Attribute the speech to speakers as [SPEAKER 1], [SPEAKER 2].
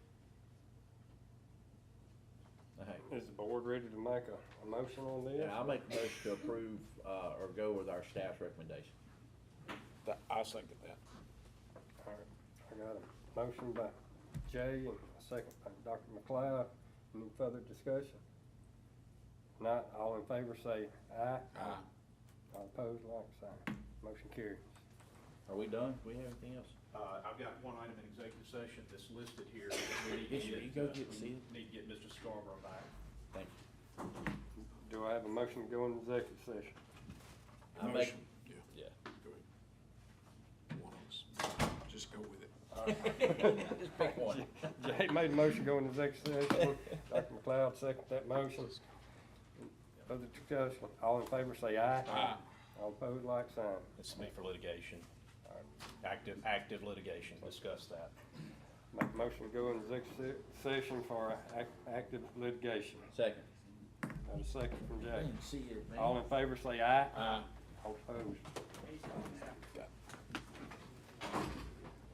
[SPEAKER 1] Is the board ready to make a, a motion on this?
[SPEAKER 2] And I'll make the motion to approve, uh, or go with our staff's recommendation.
[SPEAKER 3] Th- I second that.
[SPEAKER 1] All right, I got a motion by Jay and a second by Dr. McLeod. Any further discussion? Not, all in favor say aye.
[SPEAKER 3] Aye.
[SPEAKER 1] All opposed, like sign. Motion carries.
[SPEAKER 2] Are we done? Do we have anything else?
[SPEAKER 4] Uh, I've got one item in executive session that's listed here. that we need to
[SPEAKER 2] Yes, you go get
[SPEAKER 4] uh,
[SPEAKER 2] seated.
[SPEAKER 4] Need to get Mr. Scarborough back.
[SPEAKER 2] Thank
[SPEAKER 1] Do I have a motion to go into executive session?
[SPEAKER 2] you. I make,
[SPEAKER 3] Motion. Yeah,
[SPEAKER 2] yeah.
[SPEAKER 3] go ahead. One of us. Just go with it.
[SPEAKER 2] Just pick one.
[SPEAKER 1] Jay made a motion to go into executive session. Dr. McLeod seconded that motion. Further discussion, all in favor say aye.
[SPEAKER 3] Aye.
[SPEAKER 1] All opposed, like sign.
[SPEAKER 4] This is me for litigation, active, active litigation, discuss that.
[SPEAKER 1] Make a motion to go into executive se- session for ac- active litigation.
[SPEAKER 2] Second.
[SPEAKER 1] Got a second from Jay.
[SPEAKER 2] See you, man.
[SPEAKER 1] All in favor, say aye.
[SPEAKER 3] Aye.
[SPEAKER 1] All opposed.